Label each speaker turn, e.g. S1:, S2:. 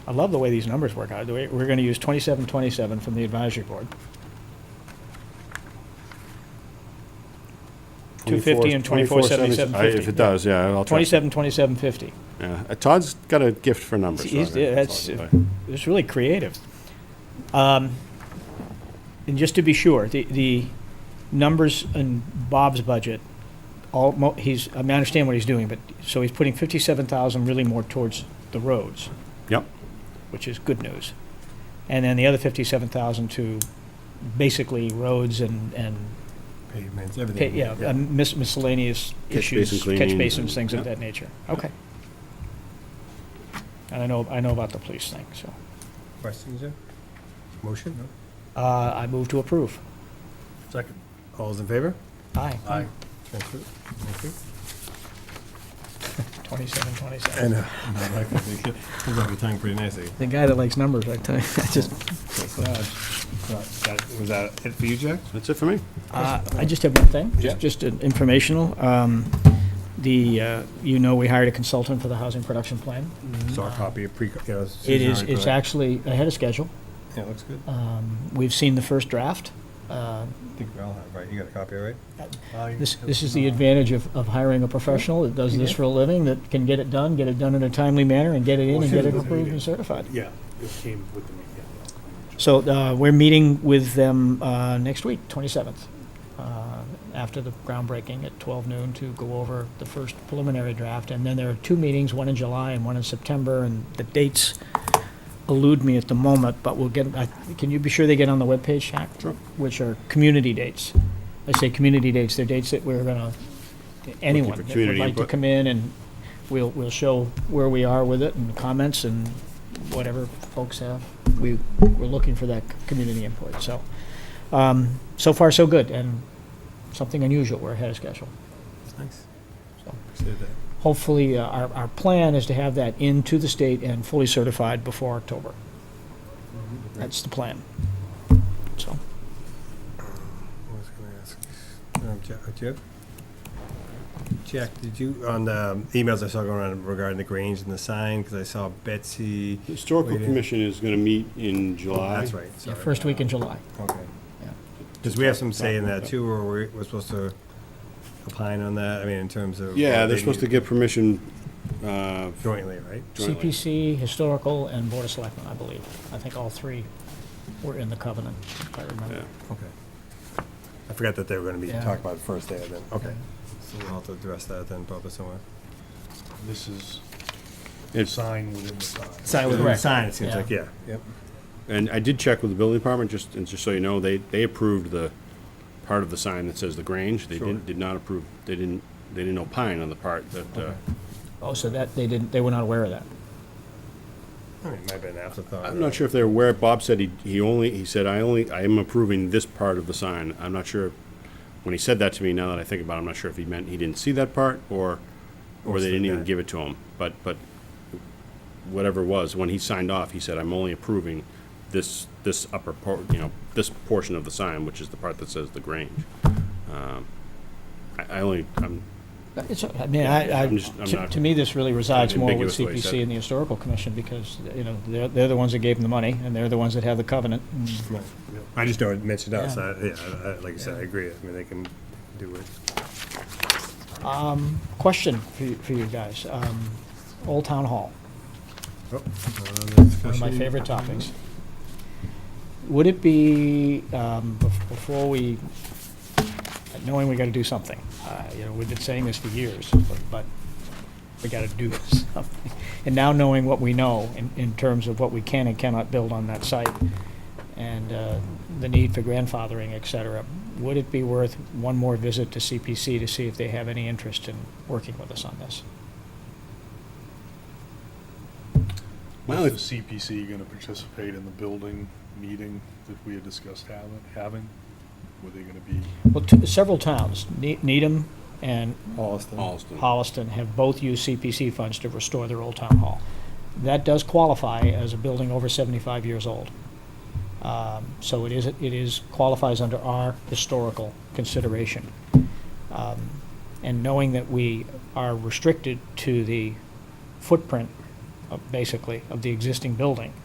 S1: I love the way these numbers work out. The way- We're going to use 2727 from the advisory board. 250 and 2477.
S2: I- If it does, yeah, I'll try.
S1: 272750.
S2: Yeah. Uh, Todd's got a gift for numbers.
S1: He's-
S2: so I-
S1: that's-
S2: I-
S1: It's really creative. Um, And just to be sure, the, the numbers in Bob's budget, all, mo- he's, I mean, I understand what he's doing, but, so he's putting 57,000 really more towards the roads.
S2: Yep.
S1: Which is good news. And then the other 57,000 to basically roads and, and,
S3: Pavements,
S1: pa-
S3: everything.
S1: yeah, uh, mis- miscellaneous
S2: Catch
S1: issues.
S2: basin
S1: Catch
S2: cleaning
S1: basins,
S2: and-
S1: things of
S2: yeah.
S1: that nature. Okay. And I know, I know about the police thing, so.
S3: Questions there? Motion?
S1: Uh, I move to approve.
S3: Second. All's in favor?
S1: Aye.
S3: Thank you. Thank you.
S1: Twenty-seven, twenty-seven.
S3: And, uh, my wife, I think, it comes off your tongue pretty nicely.
S1: The guy that likes numbers, I tell you, I just,
S3: That- Was that it for you, Jack?
S2: That's it for me.
S1: uh, I just have one thing.
S3: Yeah.
S1: Just an informational. Um, the, uh, you know, we hired a consultant for the housing production plan.
S3: Saw a copy of pre, yeah.
S1: Mm-hmm. It
S3: Susan
S1: is,
S3: already
S1: it's
S3: put it.
S1: actually ahead of schedule.
S3: Yeah, it looks good.
S1: Um, we've seen the first draft. Uh,
S3: I think we all have, right? You got a copy, right?
S1: This, this is the advantage of, of hiring a professional that does this for a living, that can get it done, get it done in a timely manner, and get it in and get it approved and certified.
S4: Yeah, it came with the meeting.
S1: So uh, we're meeting with them uh, next week, 27th, uh, after the groundbreaking at 12 noon to go over the first preliminary draft. And then there are two meetings, one in July and one in September, and the dates elude me at the moment, but we'll get, I- can you be sure they get on the webpage, Shaq?
S2: Sure.
S1: Which are community dates. I say community dates, they're dates that we're gonna, anyone
S2: a
S1: that would
S2: community
S1: like to
S2: input.
S1: come in and we'll, we'll show where we are with it and comments and whatever folks have. We, we're looking for that c- community input, so. Um, so far, so good, and something unusual, we're ahead of schedule.
S3: Nice.
S1: So-
S3: Appreciate that.
S1: Hopefully, uh, our, our plan is to have that into the state and fully certified before October.
S2: Mm-hmm.
S1: That's the plan. So,
S3: I was gonna ask, um, Jack, do you have? Jack, did you, on the um, emails I saw going around regarding the Grange and the sign, because I saw Betsy.
S2: The Historical
S3: Waiting.
S2: Commission is going to meet in July.
S3: That's right.
S1: yeah,
S3: sorry.
S1: first week in
S2: uh,
S1: July.
S3: Okay.
S1: Yeah.
S3: Because we have some say in that too, or we're, we're supposed to opine on that, I mean, in terms of.
S2: Yeah,
S3: what
S2: they're
S3: they
S2: supposed to
S3: need
S2: get permission uh,
S3: Jointly, right?
S2: jointly.
S1: CPC, Historical, and Board of Selectmen, I believe. I think all three were in the covenant, if I remember.
S2: Yeah.
S3: Okay. I forgot that they were gonna be
S1: Yeah.
S3: talking about the first day of it, okay. So we'll have to address that then, probably somewhere.
S4: This is
S2: It's-
S4: sign within the sign.
S3: Sign
S1: within the Correct.
S3: Sign, it seems
S1: Yeah.
S3: like, yeah. Yep.
S2: And I did check with the building department, just, and just so you know, they, they approved the part of the sign that says the Grange. They
S3: Sure.
S2: didn't, did not approve, they didn't, they didn't opine on the part that, uh,
S1: Oh, so that, they didn't, they were not aware of that.
S3: I mean, it might have been an afterthought.
S2: I'm not sure if they're aware, Bob said he, he only, he said, I only, I am approving this part of the sign. I'm not sure, when he said that to me, now that I think about it, I'm not sure if he meant he didn't see that part, or, or they didn't even
S3: Okay.
S2: give it to him. But, but whatever it was, when he signed off, he said, I'm only approving this, this upper part, you know, this portion of the sign, which is the part that says the Grange. Um, I, I only, I'm,
S1: Uh, It's, I mean, I, I,
S2: I'm just- I'm
S1: to-
S2: not-
S1: to me, this really resides more with
S2: Ambiguous way said.
S1: CPC and the Historical Commission, because, you know, they're, they're the ones that gave them the money, and they're the ones that have the covenant. and
S3: Right. I just know it mentioned us,
S1: Yeah.
S3: I, yeah, I- I- like I said, I agree, I mean, they can do it.
S1: Question for you, for you guys, um, Old Town Hall, one
S3: Oh, One
S1: of my favorite topics. Would it be, um, bef- before we, knowing we gotta do something, uh, you know, we've been saying this for years, but, but we gotta do something. And now knowing what we know in, in terms of what we can and cannot build on that site, and, uh, the need for grandfathering, et cetera, would it be worth one more visit to CPC to see if they have any interest in working with us on this?
S2: Well,
S4: Is the CPC going to participate in the building meeting that we had discussed having? having? Were they going to be?
S1: Well, t- several towns, Ne- Needham and
S2: Alston.
S1: Holliston, have both used CPC funds to restore their old town hall. That does qualify as a building over 75 years old. Um, So it is, it is, qualifies under our historical consideration. Um, And knowing that we are restricted to the footprint uh, basically, of the existing building.